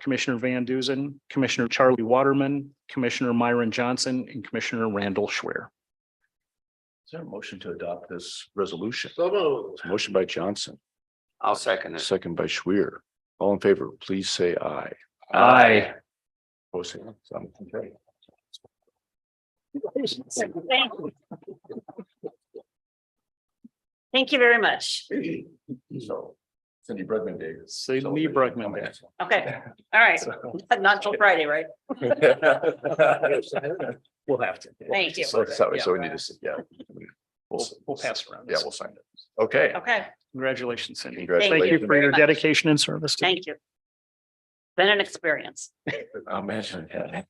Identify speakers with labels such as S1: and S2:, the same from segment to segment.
S1: Commissioner Van Duzen, Commissioner Charlie Waterman, Commissioner Myron Johnson, and Commissioner Randall Schwer.
S2: Is there a motion to adopt this resolution?
S3: So moved.
S2: Motion by Johnson,
S3: I'll second it.
S2: second by Schwer. All in favor, please say aye. Opposed, say no. Okay.
S4: Thank you. Thank you very much.
S2: So Cindy Bregman Day. is
S1: Cindy
S2: celebrated.
S1: Bregman Day.
S4: Okay, all right. Not till Friday, right?
S1: We'll have to.
S4: Thank you.
S2: So, so so we need to, see- yeah.
S1: We'll, we'll pass around.
S2: Yeah, we'll sign it. Okay.
S4: Okay,
S1: Congratulations, Cindy.
S2: Congratulations.
S1: Thank you for your
S4: much.
S1: dedication and service. to-
S4: thank you. Been an experience.
S2: I'll mention that.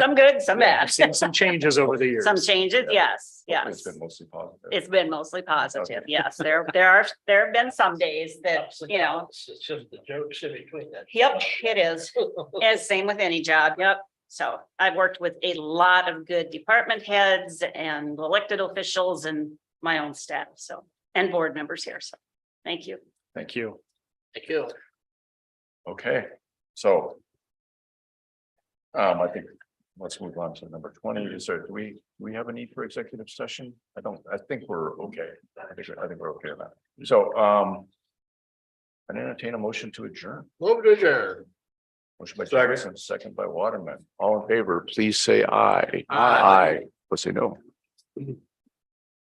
S4: Some good, some
S1: Yeah,
S4: bad.
S1: I've Seen some changes over the years.
S4: Some changes, yes,
S2: It's
S4: yes.
S2: been mostly positive.
S4: It's been mostly positive. Yes, there, there are, there have been some days that, you know,
S3: It's just the jokes in between that.
S4: yep, it is. And same with any job, yep. So I've worked with a lot of good department heads and elected officials and my own staff, so, and board members here, so, thank you.
S1: Thank you.
S3: Thank you.
S2: Okay, so. Um, I think, let's move on to number twenty, is there, do we, do we have a need for executive session? I don't, I think we're okay, I think, I think we're okay with that, so, um. I entertain a motion to adjourn,
S3: Move to adjourn.
S2: motion by
S3: Second.
S2: Jackson, second by Waterman, all in favor, please say aye.
S3: Aye.
S2: Let's say no.